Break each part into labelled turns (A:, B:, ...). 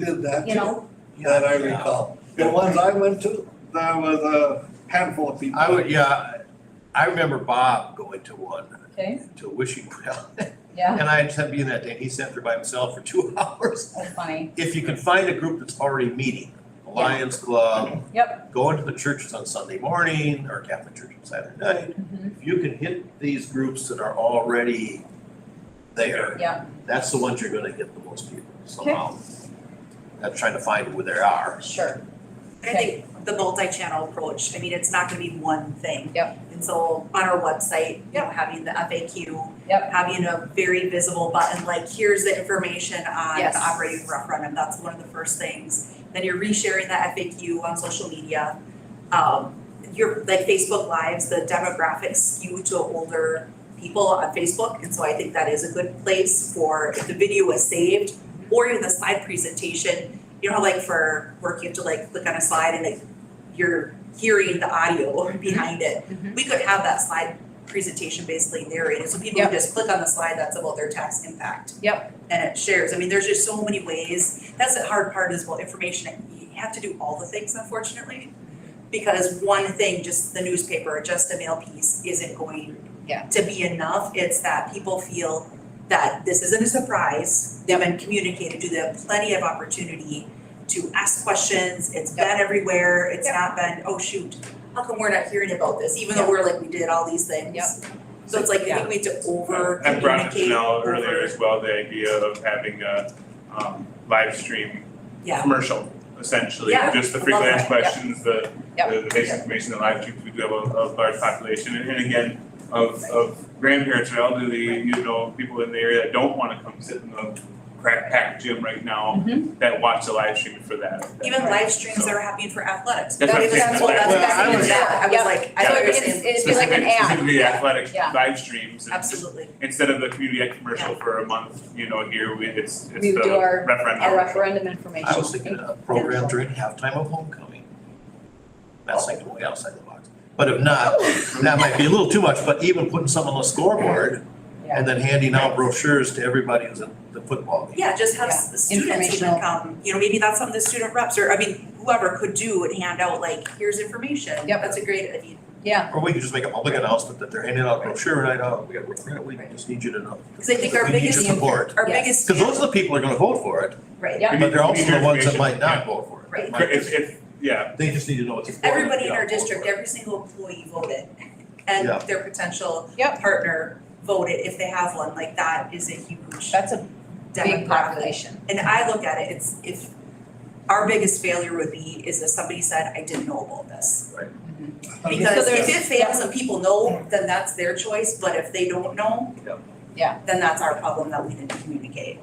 A: did that
B: you
A: too,
B: know,
A: that I recall. The ones I went to, there was a handful of people.
C: I would, yeah, I remember Bob going to one,
B: okay,
C: to a wishing well.
B: yeah,
C: And I had to be in that day, and he sat there by himself for two hours.
B: that's funny,
C: If you can find a group that's already meeting, a Lions Club.
B: Yep.
C: Going to the churches on Sunday morning, or Catholic church on Saturday night.
B: Mhm.
C: If you can hit these groups that are already there.
B: Yeah.
C: That's the ones you're gonna get the most people somehow. Not trying to find where they are.
B: sure,
D: I think the multi-channel approach, I mean, it's not gonna be one thing.
B: Yep.
D: And so on our website, you know, having the FAQ.
B: Yep.
D: Having a very visible button, like here's the information on
B: Yes.
D: the operating referendum, that's one of the first things. Then you're resharing that FAQ on social media. Um, your, like Facebook Lives, the demographics skew to older people on Facebook, and so I think that is a good place for if the video was saved or even the slide presentation, you know, how, like for work, you have to like click on a slide and like you're hearing the audio behind it.
B: Mhm.
D: We could have that slide presentation basically narrated, so people
B: Yep.
D: can just click on the slide that's about their tax impact.
B: Yep.
D: And it shares, I mean, there's just so many ways, that's the hard part is, well, information, you have to do all the things unfortunately. Because one thing, just the newspaper, just the mail piece isn't going
B: Yeah.
D: to be enough, it's that people feel that this isn't a surprise, they've been communicated, to them plenty of opportunity to ask questions, it's been everywhere, it's
B: Yep.
D: not been, oh shoot, how come we're not hearing about this, even though we're like, we did all these things. So it's like, I think we need to over
E: I brought up
D: communicate,
E: Janelle
D: over-
E: earlier as well, the idea of having a um live stream
D: Yeah.
E: commercial, essentially,
D: Yeah,
E: just the
D: I love
E: frequently
D: that,
E: asked questions, the
B: Yep.
E: the the basic information, the live streams, we do have a a large population, and and again, of of grandparents or elderly, you know, people in the area that don't wanna come sit in the crack packed gym right now,
C: Mm-hmm.
E: that watch the live stream for that. that
D: even
E: part.
D: live streams
E: So-
D: that are happening for athletics.
E: That's what I'm
B: That-
E: saying,
B: that's
E: that's
B: what-
E: what I'm
B: that's
E: saying.
B: what I was-
D: Yeah, I
B: Yeah.
D: was like, I
E: So
D: thought you were
E: it's-
D: saying,
B: it'd be like an
E: Specific-
B: ad,
E: Specifically
B: yeah,
E: athletic
B: yeah.
E: live streams, and just
D: absolutely,
E: instead of the community ed commercial for a month, you know, here we, it's, it's
B: We
E: the
B: would do our-
E: referendum.
B: our referendum information.
C: I was thinking a program during halftime of homecoming. That's like way outside the box. But if not, that might be a little too much, but even putting some on the scoreboard
B: Yeah.
C: and then handing out brochures to everybody who's at the football game.
D: yeah, just have s- the students
B: Informational.
D: even come, you know, maybe that's something the student reps or, I mean, whoever could do and hand out like, here's information.
B: Yep.
D: That's a great, I mean,
B: Yeah,
C: Or we could just make a public announcement that they're handing out a brochure right out, we got, a we just need you to know.
D: because I think our
C: We need your
D: biggest,
C: support,
D: our
B: Yes.
D: biggest.
C: because those are the people who are gonna vote for it,
D: Right,
B: Yeah.
C: but they're also the ones that might
E: Yeah.
C: not vote for it.
D: Right.
C: Might
E: If,
C: just-
E: if, yeah,
C: They just need to know it's
D: if
C: important.
D: everybody in
C: yeah,
D: our
C: vote for
D: district,
C: it.
D: every single employee voted and
C: Yeah.
D: their potential
B: Yep.
D: partner voted, if they have one, like that is a huge
B: that's a big
D: demographic.
B: population,
D: And I look at it, it's if, our biggest failure would be is if somebody said, I didn't know about this. Because
B: So
D: if it
B: there's-
D: fails and people know, then that's their choice, but if they don't know.
C: Yeah.
B: Yeah.
D: Then that's our problem that we didn't communicate.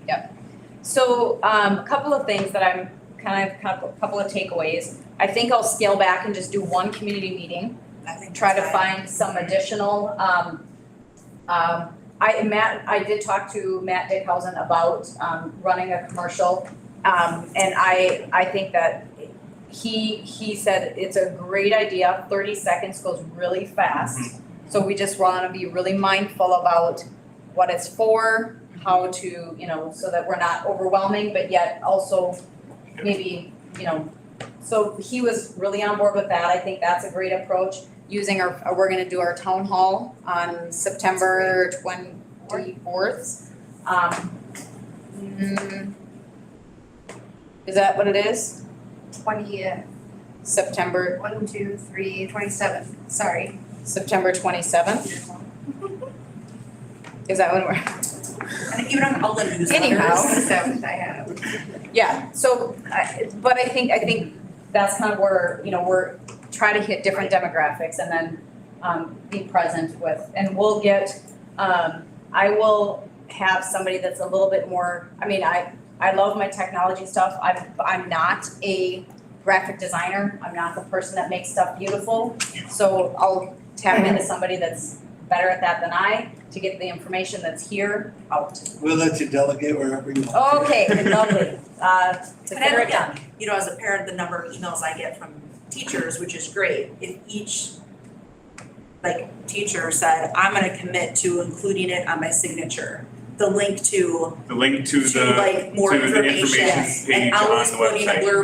B: so, um, a couple of things that I'm kind of, couple, couple of takeaways. I think I'll scale back and just do one community meeting,
D: I think
B: try to
D: that's why-
B: find some additional, um, um, I, Matt, I did talk to Matt Dickhausen about, um, running a commercial. Um, and I, I think that he, he said it's a great idea, thirty seconds goes really fast. So we just wanna be really mindful about what it's for, how to, you know, so that we're not overwhelming, but yet also maybe, you know. So he was really on board with that, I think that's a great approach using our, uh, we're gonna do our town hall on September twenty-fourth. Um, mm, is that what it is?
F: twentieth,
B: September,
F: one, two, three, twenty-seven, sorry.
B: September twenty-seventh, is that when we're,
D: And even on all the newsletters.
B: Anyhow.
F: Twenty-seventh I have.
B: yeah, so, I, but I think, I think that's kind of where, you know, we're, try to hit different demographics and then, um, be present with, and we'll get, um, I will have somebody that's a little bit more, I mean, I, I love my technology stuff, I'm, I'm not a graphic designer, I'm not the person that makes stuff beautiful. So I'll tap into somebody that's better at that than I to get the information that's here out.
A: We'll let you delegate wherever you want.
B: Okay, lovely, uh,
D: And I
B: consider it
D: look
B: done.
D: at, you know, as a parent, the number of emails I get from teachers, which is great, if each like teacher said, I'm gonna commit to including it on my signature. the link to
E: the link to the,
D: to like more
E: to the
D: information.
E: information page
D: And
E: on the website.
D: always putting a blurb